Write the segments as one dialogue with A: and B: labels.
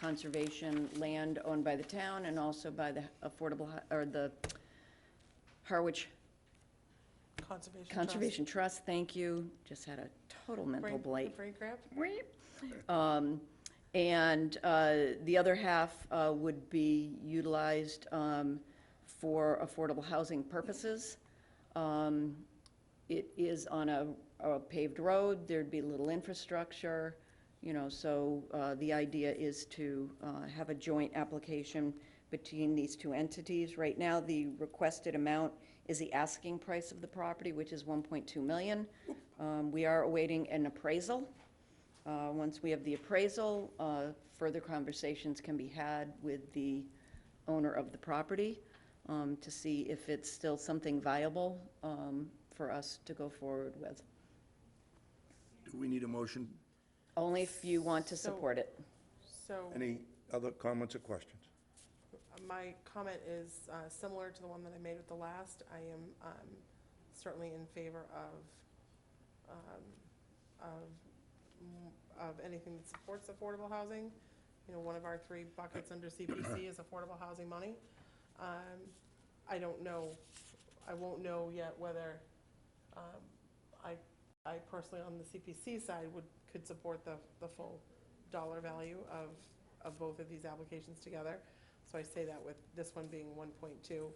A: conservation land owned by the town and also by the affordable, Ho- or the Harwich
B: Conservation Trust.
A: Conservation Trust, thank you. Just had a total mental
B: Brain-
A: blight.
B: Brain grab?
A: Um, And uh, the other half uh, would be utilized um, for affordable housing purposes. Um, It is on a a paved road, there'd be little infrastructure, you know, so uh, the idea is to uh, have a joint application between these two entities. Right now, the requested amount is the asking price of the property, which is 1.2 million. Um, We are awaiting an appraisal. Uh, Once we have the appraisal, uh, further conversations can be had with the owner of the property um, to see if it's still something viable um, for us to go forward with.
C: Do we need a motion?
A: Only if you want to
B: So-
A: support it.
B: So uh,
C: Any other comments or questions?
B: my comment is uh, similar to the one that I made with the last. I am um, certainly in favor of, um, mm, of, of anything that supports affordable housing. You know, one of our three buckets under CPC is affordable housing money. Um, I don't know, I won't know yet whether um, I, I personally on the CPC side would, could support the, the full dollar value of, of both of these applications together. So I say that with this one being one point two.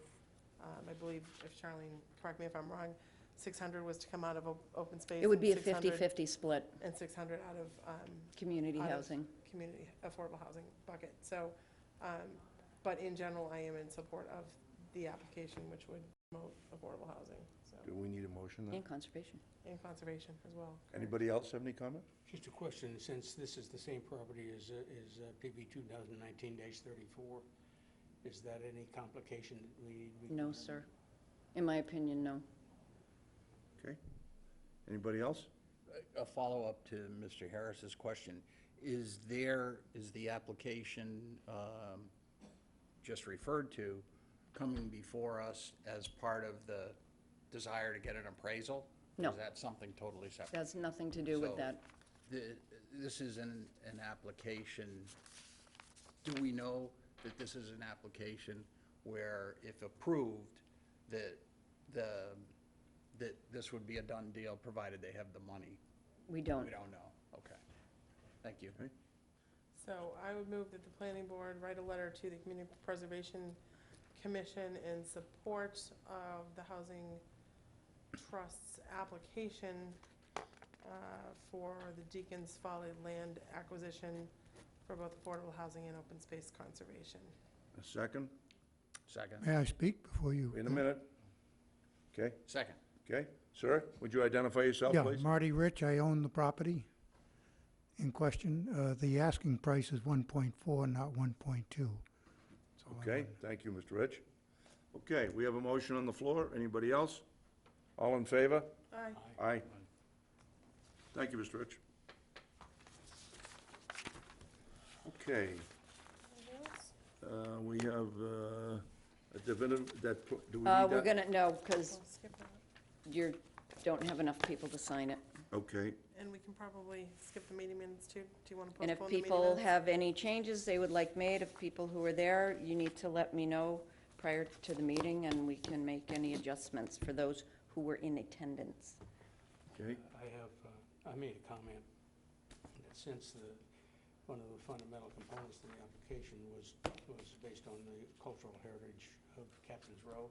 B: Um, I believe, if Charlene, correct me if I'm wrong, six hundred was to come out of o- open space.
A: It would
B: and
A: be a
B: 600
A: 50-50 split,
B: And six hundred out of, um,
A: community
B: Out of-
A: housing.
B: community affordable housing bucket. So, um, but in general, I am in support of the application, which would promote affordable housing, so,
C: Do we need a motion then?
A: And conservation.
B: and conservation as well.
C: Anybody else have any comment?
D: Just a question, since this is the same property as, uh, is uh, PB 2019-34, is that any complication that we? we-
A: No, sir. In my opinion, no.
C: Okay. Anybody else?
E: A follow-up to Mr. Harris's question. Is there, is the application um, just referred to coming before us as part of the desire to get an appraisal? Or
A: No.
E: Is that something totally separate?
A: Has nothing to do with
E: So,
A: that.
E: the- This is an, an application, do we know that this is an application where if approved, that the, that this would be a done deal, provided they have the money?
A: We don't.
E: We don't know, okay. Thank you.
B: So I would move that the planning board write a letter to the Community Preservation Commission in support of the Housing Trust's application uh, for the Deacon's Folly land acquisition for both affordable housing and open space conservation.
C: A second?
E: Second,
F: May I speak before you?
C: In a minute. Okay,
E: second.
C: okay. Sir, would you identify yourself,
F: Yeah,
C: please?
F: Marty Rich, I own the property in question. Uh, The asking price is 1.4, not 1.2.
C: Okay, thank you, Mr. Rich. Okay, we have a motion on the floor. Anybody else? All in favor?
B: Aye.
C: Aye. Thank you, Mr. Rich. Okay, uh, we have uh, a definitive, that, do we need
A: Uh,
C: that?
A: We're going to, no, because
B: We'll skip that.
A: you don't have enough people to sign it.
C: Okay,
B: And we can probably skip the meeting minutes too. Do you want to
A: And
B: postpone
A: if
B: the meeting minutes?
A: people have any changes they would like made, if people who are there, you need to let me know prior to the meeting, and we can make any adjustments for those who were in attendance.
C: okay.
D: I have, uh, I made a comment that since the, one of the fundamental components of the application was, was based on the cultural heritage of Captain's Row,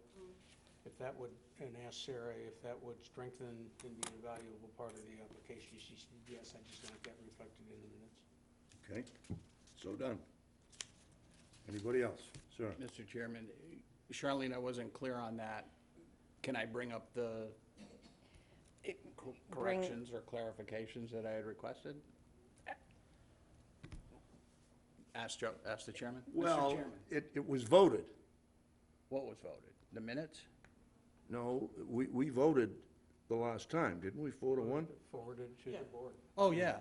D: if that would, and asked Sarah if that would strengthen and be an invaluable part of the application, she said, yes, I just want that reflected in the minutes.
C: Okay, so done. Anybody else? Sir?
E: Mr. Chairman, Charlene, I wasn't clear on that. Can I bring up the cor- corrections or clarifications that I had requested? Ask Joe, ask the chairman? Mr.
C: Well,
E: Chairman,
C: it, it was voted.
E: What was voted? The minutes?
C: No, we, we voted the last time, didn't we, four to one?
D: Forwarded to the board.
E: Oh, yeah.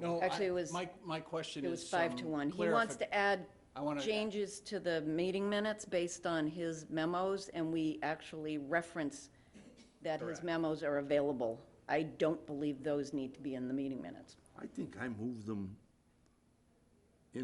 E: No, I-
A: Actually, it was-
E: My, my question is.
A: It was five to
E: some
A: one. He wants
E: clarifi-
A: to add
E: um, I wanna-
A: changes to the meeting minutes based on his memos, and we actually reference that his
E: Correct.
A: memos are available. I don't believe those need to be in the meeting minutes.
C: I think I moved them